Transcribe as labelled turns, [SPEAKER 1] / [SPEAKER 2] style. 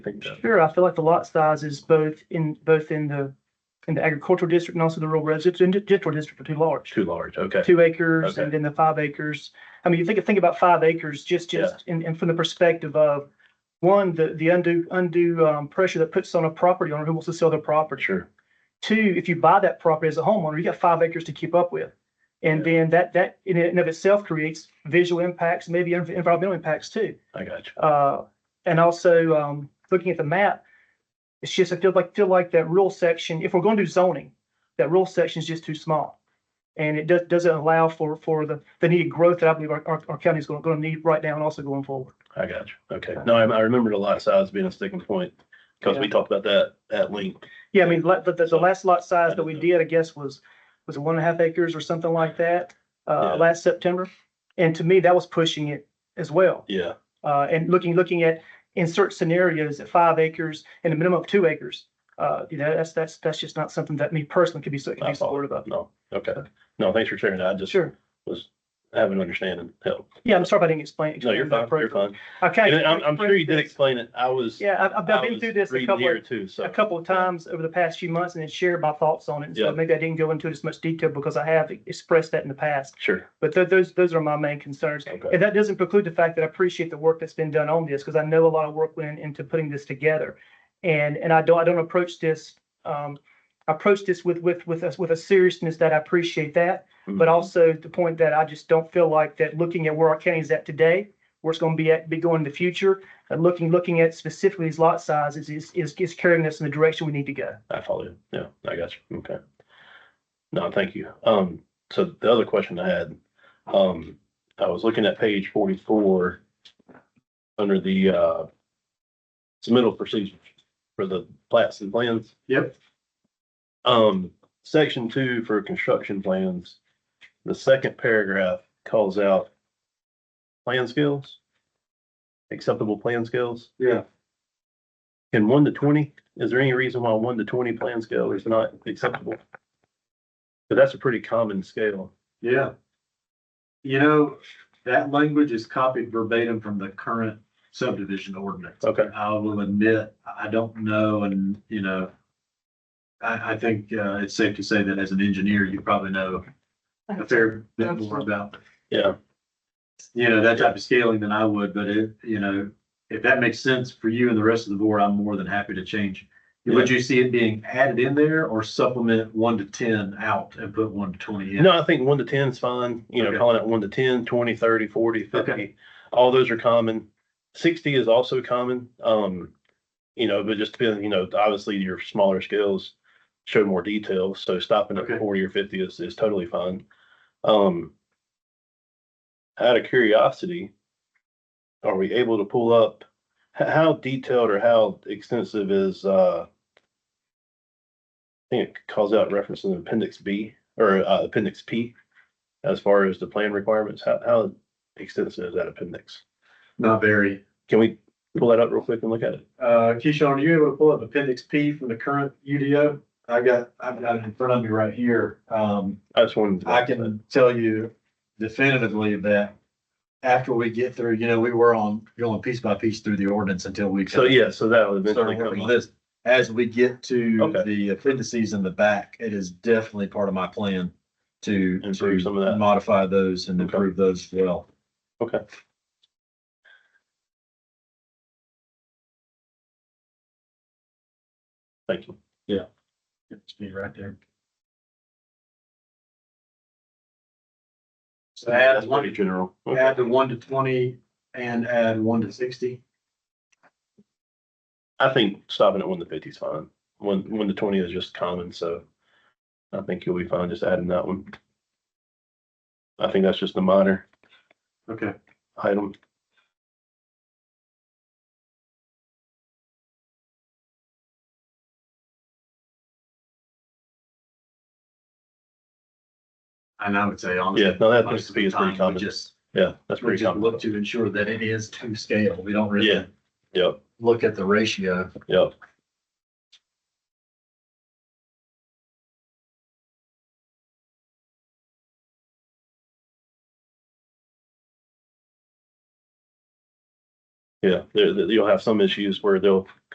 [SPEAKER 1] think that.
[SPEAKER 2] Sure, I feel like the lot size is both in, both in the, in the agricultural district and also the rural residential district are too large.
[SPEAKER 1] Too large, okay.
[SPEAKER 2] Two acres
[SPEAKER 1] Okay.
[SPEAKER 2] and then the five acres. I mean, you think, think about five acres, just, just, and, and from the perspective of one, the, the undue, undue, um, pressure that puts on a property owner who wants to sell their property.
[SPEAKER 1] Sure.
[SPEAKER 2] Two, if you buy that property as a homeowner, you got five acres to keep up with. And then that, that in and of itself creates visual impacts, maybe env- environmental impacts too.
[SPEAKER 1] I got you.
[SPEAKER 2] Uh, and also, um, looking at the map, it's just, I feel like, feel like that rural section, if we're going to do zoning, that rural section is just too small. And it does, doesn't allow for, for the, the needed growth that I believe our, our, our county is going, going to need right now and also going forward.
[SPEAKER 1] I got you. Okay. No, I, I remembered a lot of size being a sticking point because we talked about that at length.
[SPEAKER 2] Yeah, I mean, like, the, the, the last lot size that we did, I guess, was, was one and a half acres or something like that,
[SPEAKER 1] Yeah.
[SPEAKER 2] uh, last September. And to me, that was pushing it as well.
[SPEAKER 1] Yeah.
[SPEAKER 2] uh, and looking, looking at insert scenarios at five acres and a minimum of two acres. Uh, you know, that's, that's, that's just not something that me personally could be, so- could
[SPEAKER 1] I
[SPEAKER 2] be
[SPEAKER 1] follow.
[SPEAKER 2] supportive of.
[SPEAKER 1] No. Okay. No, thanks for sharing that. I just
[SPEAKER 2] Sure.
[SPEAKER 1] was having an understanding. Help.
[SPEAKER 2] Yeah, I'm sorry if I didn't explain.
[SPEAKER 1] No, you're
[SPEAKER 2] explain that
[SPEAKER 1] fine. You're
[SPEAKER 2] properly.
[SPEAKER 1] fine.
[SPEAKER 2] I kind
[SPEAKER 1] And
[SPEAKER 2] of-
[SPEAKER 1] I'm, I'm sure you did explain it. I was.
[SPEAKER 2] Yeah, I've, I've
[SPEAKER 1] I
[SPEAKER 2] been
[SPEAKER 1] was
[SPEAKER 2] through this a
[SPEAKER 1] reading
[SPEAKER 2] couple
[SPEAKER 1] here
[SPEAKER 2] of,
[SPEAKER 1] Too, so.
[SPEAKER 2] a couple of times over the past few months and then shared my thoughts on it.
[SPEAKER 1] Yeah.
[SPEAKER 2] So maybe I didn't go into it as much detail because I have expressed that in the past.
[SPEAKER 1] Sure.
[SPEAKER 2] But tho- those, those are my main concerns.
[SPEAKER 1] Okay.
[SPEAKER 2] And that doesn't preclude the fact that I appreciate the work that's been done on this, because I know a lot of work went into putting this together. And, and I don't, I don't approach this, um, I approach this with, with, with us, with a seriousness that I appreciate that. But also the point that I just don't feel like that looking at where our county's at today, where it's gonna be at, be going in the future, and looking, looking at specifically these lot sizes is, is, is carrying us in the direction we need to go.
[SPEAKER 1] I follow you. Yeah, I got you. Okay. No, thank you. Um, so the other question I had, um, I was looking at page forty-four under the, uh, submittal procedures for the plats and plans.
[SPEAKER 3] Yep.
[SPEAKER 1] Um, section two for construction plans, the second paragraph calls out plan skills, acceptable plan skills.
[SPEAKER 3] Yeah.
[SPEAKER 1] Can one to twenty, is there any reason why one to twenty plan scale is not acceptable? But that's a pretty common scale.
[SPEAKER 3] Yeah. You know, that language is copied verbatim from the current subdivision ordinance.
[SPEAKER 1] Okay.
[SPEAKER 3] I will admit, I don't know, and, you know, I, I think, uh, it's safe to say that as an engineer, you probably know a fair bit more about,
[SPEAKER 1] Yeah,
[SPEAKER 3] you know, that type of scaling than I would, but it, you know, if that makes sense for you and the rest of the board, I'm more than happy to change. Would you see it being added in there or supplement one to ten out and put one to twenty in?
[SPEAKER 1] no, I think one to ten is fine, you know,
[SPEAKER 3] Okay.
[SPEAKER 1] calling it one to 10, 20, 30, 40, 50.
[SPEAKER 3] Okay.
[SPEAKER 1] All those are common. Sixty is also common, um, you know, but just depending, you know, obviously your smaller scales show more detail, so stopping
[SPEAKER 3] Okay.
[SPEAKER 1] at forty or fifty is, is totally fine. Um, out of curiosity, are we able to pull up, h- how detailed or how extensive is, uh, I think it calls out reference in appendix B or uh, appendix P as far as the plan requirements, how, how extensive is that appendix?
[SPEAKER 3] Not very.
[SPEAKER 1] Can we pull that up real quick and look at it?
[SPEAKER 3] Uh, Keyshawn, are you able to pull up appendix P from the current UDO? I got, I've got it in front of me right here. Um,
[SPEAKER 1] I just wanted. to-
[SPEAKER 3] I can tell you definitively that after we get through, you know, we were on, going piece by piece through the ordinance until we.
[SPEAKER 1] So, yeah, so that would
[SPEAKER 3] So
[SPEAKER 1] eventually come
[SPEAKER 3] we're-
[SPEAKER 1] up.
[SPEAKER 3] this- As we get to
[SPEAKER 1] Okay.
[SPEAKER 3] the appendices in the back, it is definitely part of my plan to,
[SPEAKER 1] Improve some of that.
[SPEAKER 3] to modify those and
[SPEAKER 1] Okay.
[SPEAKER 3] improve those as well.
[SPEAKER 1] Thank you.
[SPEAKER 3] It's me right there. So add
[SPEAKER 1] That's
[SPEAKER 3] one,
[SPEAKER 1] pretty general. Okay.
[SPEAKER 3] add the one to twenty and add one to sixty.
[SPEAKER 1] I think stopping at one to fifty is fine. One, one to twenty is just common, so I think you'll be fine just adding that one. I think that's just a minor
[SPEAKER 3] Okay.
[SPEAKER 1] item.
[SPEAKER 3] And I would say honestly.
[SPEAKER 1] Yeah, no, that
[SPEAKER 3] most
[SPEAKER 1] appears
[SPEAKER 3] of the
[SPEAKER 1] pretty
[SPEAKER 3] time,
[SPEAKER 1] common.
[SPEAKER 3] We just,
[SPEAKER 1] Yeah, that's
[SPEAKER 3] we
[SPEAKER 1] pretty
[SPEAKER 3] just
[SPEAKER 1] common.
[SPEAKER 3] look to ensure that it is to scale. We don't
[SPEAKER 1] Yeah.
[SPEAKER 3] really
[SPEAKER 1] Yep,
[SPEAKER 3] look at the ratio.
[SPEAKER 1] yep. Yeah, there, there- you'll have some issues where they'll